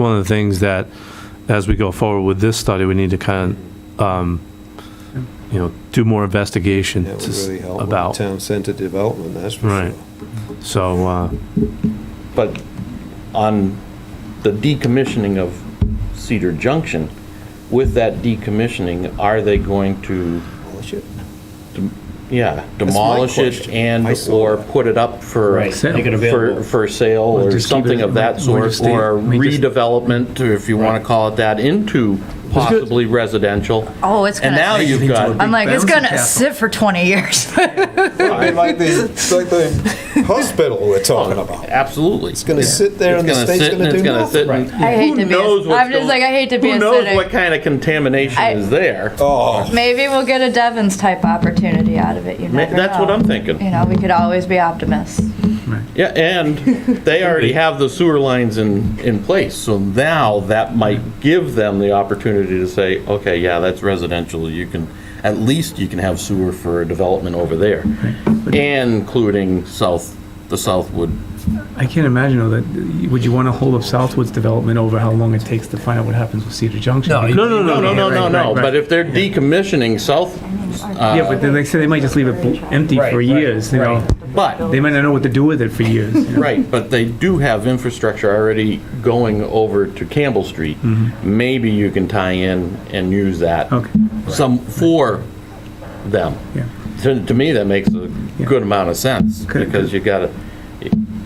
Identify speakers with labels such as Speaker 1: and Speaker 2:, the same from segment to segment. Speaker 1: one of the things that, as we go forward with this study, we need to kind of, um, you know, do more investigation
Speaker 2: That would
Speaker 1: to s-
Speaker 2: really help with the
Speaker 1: about,
Speaker 2: town center development, that's for
Speaker 1: Right.
Speaker 2: sure.
Speaker 1: so, uh,
Speaker 3: But on the decommissioning of Cedar Junction, with that decommissioning, are they going to,
Speaker 2: Well, shit.
Speaker 3: yeah,
Speaker 2: my
Speaker 3: demolish it
Speaker 2: question.
Speaker 3: and
Speaker 2: I saw
Speaker 3: or
Speaker 2: that.
Speaker 3: put it up for,
Speaker 4: Right, make it
Speaker 3: for,
Speaker 4: available.
Speaker 3: for sale
Speaker 4: Or
Speaker 3: or
Speaker 4: just keep
Speaker 3: something
Speaker 4: it-
Speaker 3: of that
Speaker 4: or
Speaker 3: sort,
Speaker 4: just leave-
Speaker 3: or
Speaker 4: we just-
Speaker 3: redevelopment, or if you want to call it that, into possibly residential?
Speaker 5: Oh, it's
Speaker 3: And
Speaker 5: gonna-
Speaker 3: now you've
Speaker 4: Into a
Speaker 3: got,
Speaker 5: I'm like, it's
Speaker 4: Bouncy
Speaker 5: gonna
Speaker 4: castle.
Speaker 5: sit for 20 years.
Speaker 2: I mean, like the, it's like the hospital we're talking about.
Speaker 3: absolutely.
Speaker 2: It's gonna sit there and the state's gonna do nothing.
Speaker 5: I hate to be a- I'm just like, I hate to be a
Speaker 3: Who knows
Speaker 5: cynic.
Speaker 3: what kind of contamination
Speaker 5: I-
Speaker 3: is there?
Speaker 2: Oh,
Speaker 5: Maybe we'll get a Devon's type opportunity out of it. You
Speaker 3: Ma-
Speaker 5: never
Speaker 3: That's
Speaker 5: know.
Speaker 3: what I'm thinking.
Speaker 5: You know, we could always be optimists.
Speaker 3: Yeah, and they already have the sewer lines in, in place, so now that might give them the opportunity to say, okay, yeah, that's residential, you can, at least you can have sewer for a development over there, including south, the Southwood.
Speaker 4: I can't imagine though that, would you want to hold up Southwood's development over how long it takes to find out what happens with Cedar Junction? No,
Speaker 3: No, no, no, no, no, no, no, but if they're decommissioning South, uh,
Speaker 4: Yeah, but then they say they might just leave it bl- empty for years, you know?
Speaker 3: but,
Speaker 4: They might not know what to do with it for years. you know?
Speaker 3: right, but they do have infrastructure already going over to Campbell Street. Maybe you can tie in and use that
Speaker 4: Okay,
Speaker 3: some for them.
Speaker 4: yeah.
Speaker 3: To, to me, that makes a
Speaker 4: Yeah.
Speaker 3: good amount of sense,
Speaker 4: Good.
Speaker 3: because you gotta,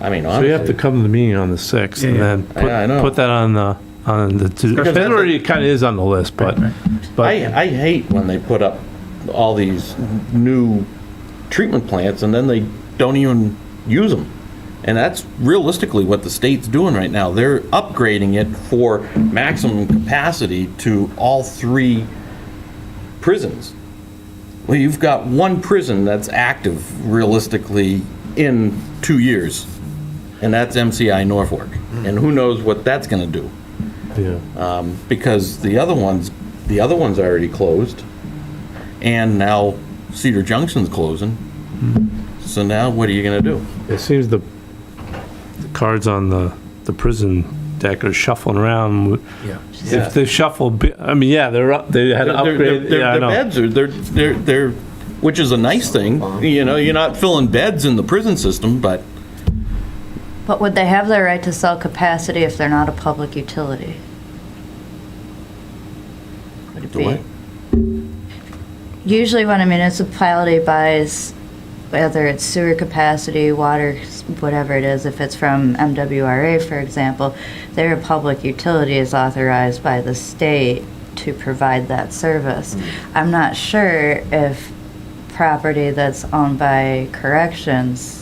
Speaker 3: I mean,
Speaker 1: so you have to
Speaker 3: honestly,
Speaker 1: come to the meeting on the 6th and
Speaker 4: Yeah, yeah.
Speaker 1: then
Speaker 3: Yeah, I know.
Speaker 1: put, put that on the, on the, to-
Speaker 3: Because
Speaker 1: it already kind of is on the list, but,
Speaker 3: I,
Speaker 1: but,
Speaker 3: I hate when they put up all these new treatment plants and then they don't even use them. And that's realistically what the state's doing right now. They're upgrading it for maximum capacity to all three prisons. Well, you've got one prison that's active realistically in two years, and that's MCI Norfolk. And who knows what that's going to do?
Speaker 1: yeah.
Speaker 3: Um, because the other ones, the other one's already closed, and now Cedar Junction's closing. So now what are you going to do?
Speaker 1: It seems the the cards on the, the prison deck are shuffling around. If they shuffle, bi- I mean, yeah, they're up, they had an
Speaker 3: Their- their-
Speaker 1: upgrade,
Speaker 3: their-
Speaker 1: yeah, I
Speaker 3: Their
Speaker 1: know.
Speaker 3: beds are, they're, they're, they're, which is a nice thing, you know, you're not filling beds in the prison system, but
Speaker 5: But would they have the right to sell capacity if they're not a public utility? Would it
Speaker 3: The
Speaker 5: be?
Speaker 3: what?
Speaker 5: Usually when a municipality buys, whether it's sewer capacity, water, s- whatever it is, if it's from MWRA, for example, their public utility is authorized by the state to provide that service. I'm not sure if property that's owned by corrections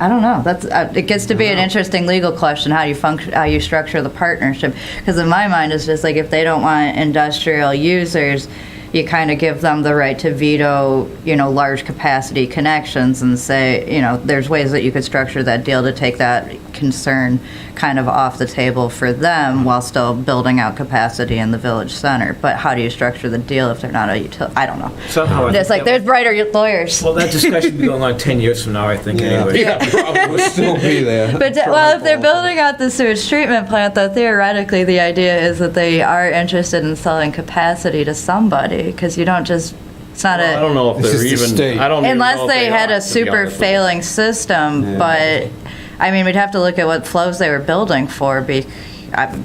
Speaker 5: I don't know. That's uh, it gets to be an interesting legal question. How do you function? How you structure the partnership? Because in my mind, it's just like if they don't want industrial users, you kind of give them the right to veto, you know, large capacity connections and say, you know, there's ways that you could structure that deal to take that concern kind of off the table for them while still building out capacity in the village center. But how do you structure the deal if they're not a utility? I don't know.
Speaker 6: Somehow, I
Speaker 5: It's
Speaker 6: think
Speaker 5: like
Speaker 6: that-
Speaker 5: there's brighter lawyers.
Speaker 6: Well, that discussion will be going on 10 years from now, I think,
Speaker 2: Yeah.
Speaker 6: anyway.
Speaker 2: we'll still be there.
Speaker 5: But de- well, if they're building out the sewage treatment plant, though, theoretically, the idea is that they are interested in selling capacity to somebody because you don't just. It's not
Speaker 3: I
Speaker 5: a
Speaker 3: don't know if
Speaker 2: This
Speaker 3: they're
Speaker 2: is the state.
Speaker 3: even, I don't even know
Speaker 5: unless
Speaker 3: if
Speaker 5: they, had
Speaker 3: are, to
Speaker 5: a
Speaker 3: be
Speaker 5: super
Speaker 3: honest with you.
Speaker 5: failing system,
Speaker 2: Yeah.
Speaker 5: but I mean, we'd have to look at what flows they were building for. Be, I,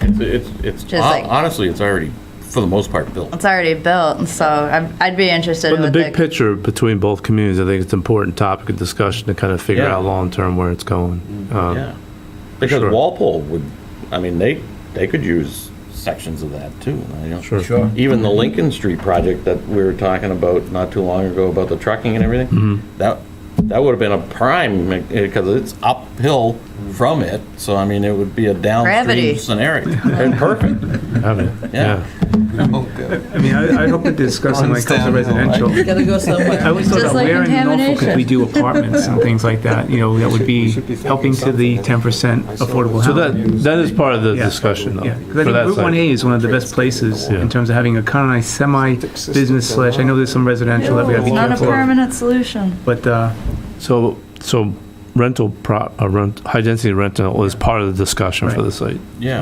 Speaker 3: It's, it's, it's-
Speaker 5: Just like-
Speaker 3: honestly, it's already, for the most part, built.
Speaker 5: it's already built, and so I'm, I'd be interested
Speaker 1: But in
Speaker 5: in
Speaker 1: the
Speaker 5: what
Speaker 1: big
Speaker 5: they-
Speaker 1: picture between both communities, I think it's an important topic of discussion to kind of figure
Speaker 3: Yeah.
Speaker 1: out long-term where it's going. Um,
Speaker 3: Yeah, because
Speaker 1: sure.
Speaker 3: Walpole would, I mean, they, they could use sections of that too. you know.
Speaker 1: Sure.
Speaker 6: Sure.
Speaker 3: Even the Lincoln Street project that we were talking about not too long ago about the trucking and everything,
Speaker 1: Mm-hmm.
Speaker 3: that, that would have been a prime, because it's uphill from it, so I mean, it would be a downstream
Speaker 5: Gravity.
Speaker 3: scenario. And perfect,
Speaker 1: I mean,
Speaker 3: Yeah.
Speaker 1: Yeah.
Speaker 4: I mean, I, I hope that discussing like comes to residential.
Speaker 7: Gotta go somewhere.
Speaker 4: I always thought
Speaker 5: Just
Speaker 4: about
Speaker 5: like
Speaker 4: where in Norfolk could we do apartments and things like that, you know, that would be
Speaker 2: should be thinking
Speaker 4: helping to the
Speaker 2: something.
Speaker 4: 10% affordable
Speaker 1: So
Speaker 4: housing.
Speaker 1: that, that is part of the
Speaker 4: Yeah.
Speaker 1: discussion though.
Speaker 4: Yeah, 'cause
Speaker 1: for
Speaker 4: I
Speaker 1: that
Speaker 4: think Route
Speaker 1: side.
Speaker 4: 1A is one of the best places
Speaker 1: Yeah.
Speaker 4: in terms of having a kind of nice semi-business slash, I know there's some residential that we gotta be
Speaker 5: It's not a
Speaker 4: careful of.
Speaker 5: permanent solution.
Speaker 4: But, uh,
Speaker 1: So, so rental pro, uh, rent, high-density rental is part of the discussion for
Speaker 4: Right.
Speaker 1: the site.
Speaker 3: yeah.